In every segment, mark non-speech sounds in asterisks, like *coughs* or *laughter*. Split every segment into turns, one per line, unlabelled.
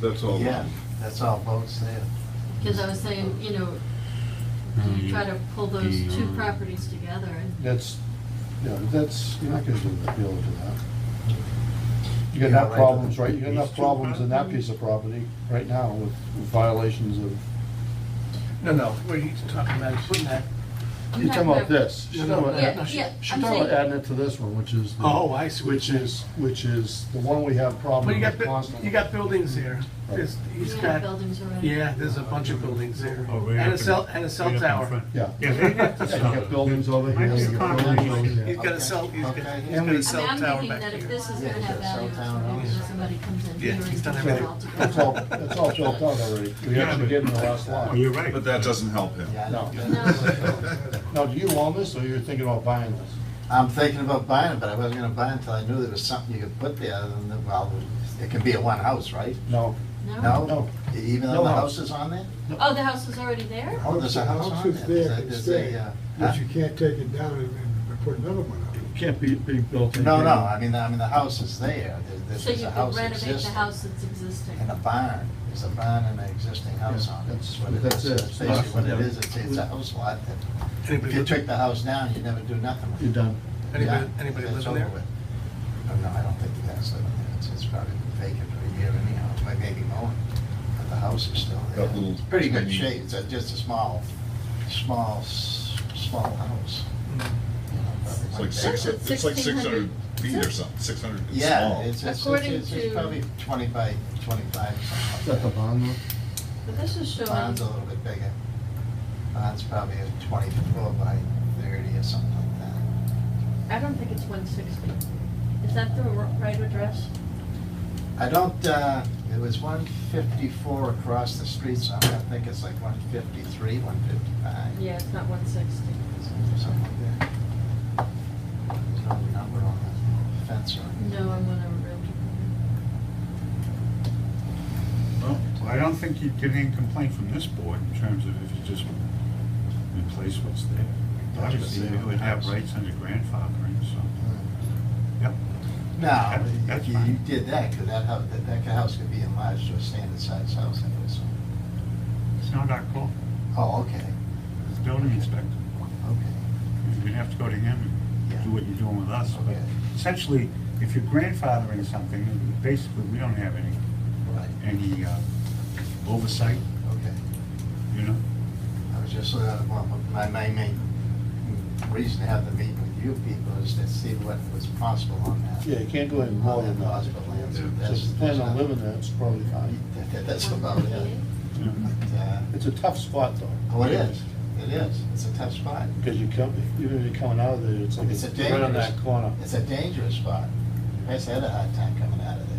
that's all.
Yeah, that's all boats there.
Because I was saying, you know, you try to pull those two properties together and
That's, yeah, that's, you're not gonna do that, be able to do that. You got
You're
enough
right.
problems, right, you got enough
These two
problems in that
properties?
piece of property right now with with violations of,
No, no, what he's talking about is putting that,
you're talking about this. She's talking about
Yeah,
adding-
yeah,
she's
I'm
talking about
saying-
adding it to this one, which is. the-
oh, I see. what
Which
you're saying.
is, which is the one we have
Well,
problems
you got,
with
bu-
constantly.
you got buildings there. There's,
you
he's
have
got,
buildings around.
yeah, there's a bunch of buildings there.
Oh, right
And
up
a cell,
in-
and a cell
right up in
tower.
front.
Yeah.
Yeah, they got the
You
cell
got buildings over
Might
here,
be
you got
concrete.
buildings over there.
He's got a cell, he's got,
Okay.
he's got a
I mean,
cell
I'm
tower
thinking
back
that if
here.
this is
Yeah,
gonna have
it's a cell
value, it's
tower
gonna be
house.
that somebody comes in
Yeah,
here
he's
and
done
puts it
everything.
all together.
That's all,
*laughs*
that's all built out already. We
Yeah,
actually
but-
gave them the last
Oh,
lot.
you're right.
But that doesn't help him. *laughs*
Yeah, I
No.
know.
Now, do you own this, or you're thinking about buying this?
I'm thinking about buying it, but I wasn't gonna buy it until I knew there was something you could put there, other than, the- well, it can be a one house, right?
No.
No?
No.
Even
No
though the
house.
house is on there?
Oh, the house is already there?
Oh, there's a house on
is
there.
there,
There's a-
it's
there's a,
there,
uh,
but you can't take it down and, and put another one up.
Can't be, be built. in
No,
here.
no, I mean, I mean, the house is there, There- there's
So
there's
you
a
could
house
renovate the
existing.
house that's existing.
And a barn, there's a barn and an existing house on it, that's what it
That's
is.
it.
That's basically what it is, it's, it's a house lot that, if
Anybody
you
live-
took the house down, you never do nothing with it.
You're done.
Anybody,
Yeah,
anybody
that's
living there?
over with. Oh, no, I don't think the guy's living there, it's, it's probably been vacant for a year anyhow, It may be mowing, but the house is still there.
That little
It's Pretty good
tiny-
shape, it's a- just a small, small, s- small house. you know, probably
It's like
that.
six,
That's
it's like six hundred
1600.
feet or something, six hundred, it's
Yeah,
small.
it's, it's,
According
it's,
to-
it's probably twenty by twenty-five,
Is
something like that.
that the
*laughs*
bond though?
But this is
The
showing,
Barn's a little bit bigger. Barn's probably a twenty-four by thirty or something like that.
I don't think it's one sixty. Is that the r- right address?
I don't, uh, it was one fifty-four across the street, so I think it's like one fifty-three, one fifty-five.
Yeah, it's not one sixty.
Something like that. There's no number on the fence or anything.
No, I'm gonna realtor.
Well, I don't think you'd get any complaint from this board in terms of if you just replace what's there. Obviously, you would have rights under grandfathering, so, yep.
No,
*laughs* That's
if you
fine.
did that, could that house, that, that house could be enlarged to a standard size house anyway, so.
It's not our call,
Oh, okay,
it's building inspector.
okay,
You'd have to go to him and do what you're doing with us. But
Okay.
Essentially, if you're grandfathering something, basically, we don't have any,
right,
any uh, oversight,
okay.
you know?
I was just, uh, well, my, my main reason to have the meeting with you people is to see what was possible on that.
Yeah, you can't do any more than that.
Possible lands.
So if you plan on living there, it's probably fine.
That- *laughs* That's about it.
You know?
But, uh,
It's a tough spot though.
Oh, it is, it is, it's a tough spot.
Because you come, even if you're coming out of there, it's like,
It's a
it's right on that
dangerous-
corner.
It's a dangerous spot. I just had a hard time coming out of there.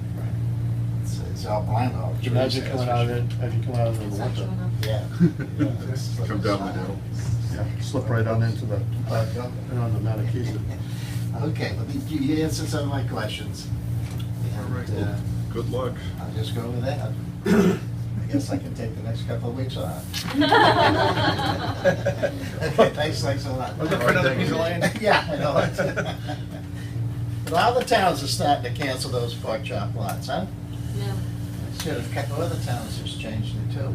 It's, it's all blind, all trees.
Imagine
that's
coming
for
out of
sure.
it, imagine coming out of it in
It's
the
not
winter.
showing up.
Yeah. Yeah, it's like
Come
a
down
slide.
the hill.
Yeah, Slip right on into the, right on the Matakeesit.
*laughs* Okay, well, you you answered some of my questions. And,
All right.
uh,
Good luck.
I'll just go with
*coughs*
that. I guess I can take the next couple of weeks off. Okay, thanks, thanks a lot.
Look for another piece of land.
*laughs* Yeah, I know *laughs* it. But all the towns are starting to cancel those pork chop lots, huh?
No.
Should have, a couple other towns has changed it too.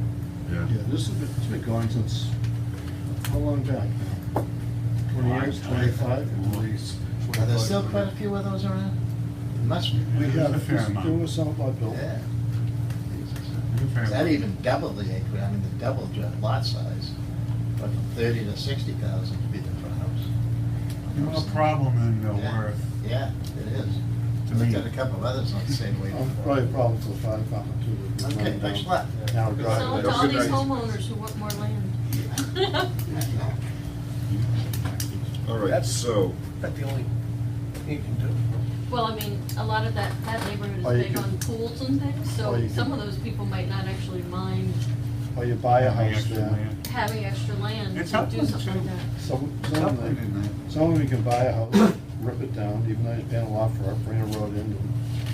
Yeah.
Yeah, this has been, it's been going since, how long back now? Twenty years, twenty-five?
Are there still quite a few of those around? Must be.
We
There's a
have,
fair amount.
there was some of our building.
Yeah.
Fair
That
enough.
even doubled the acre, I mean, the double lot size, but from thirty to sixty thousand to be the front house.
You know, a problem in uh,
Yeah.
Worth,
Yeah, it is.
To
I looked
me. Oh,
at a couple of others on the same way.
Um, Probably a problem for the fire department too. We're
Okay,
running
thanks a
down-
lot.
Now
So
driving.
to
Have a
all
good
these
night.
homeowners who want more land. *laughs*
All right,
That's-
so,
That's the only thing you can do.
Well, I mean, a lot of that, that
Or
neighborhood
Oh, you
is big
could-
on pools and things,
or
so
you
some
could-
of those people might not actually mind
Or Oh, you buy a house
extra
there.
land.
having extra land
It's
to do
helpful
something
too.
like that.
Some,
It's
some
up
of
there,
them,
didn't it?
some of them can buy a house, *coughs* rip it down, even though it's been a lot for, it, bring a road in.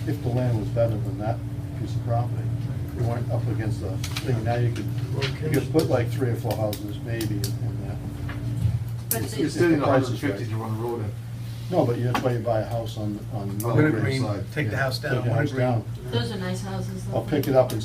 If the land was better than that piece of property, you weren't up against the thing, now you could, you could put like three or four houses maybe in that.
But
It's-
they-
it's
Still in
the
the
price
hundred and
is right.
fifty to run the road in.
No, but that's why you buy a house on, on.
Winter
Grove
Green,
side.
take the house down,
Take the
Winter
house
Green.
down,
those are nice houses. though.
or pick it up and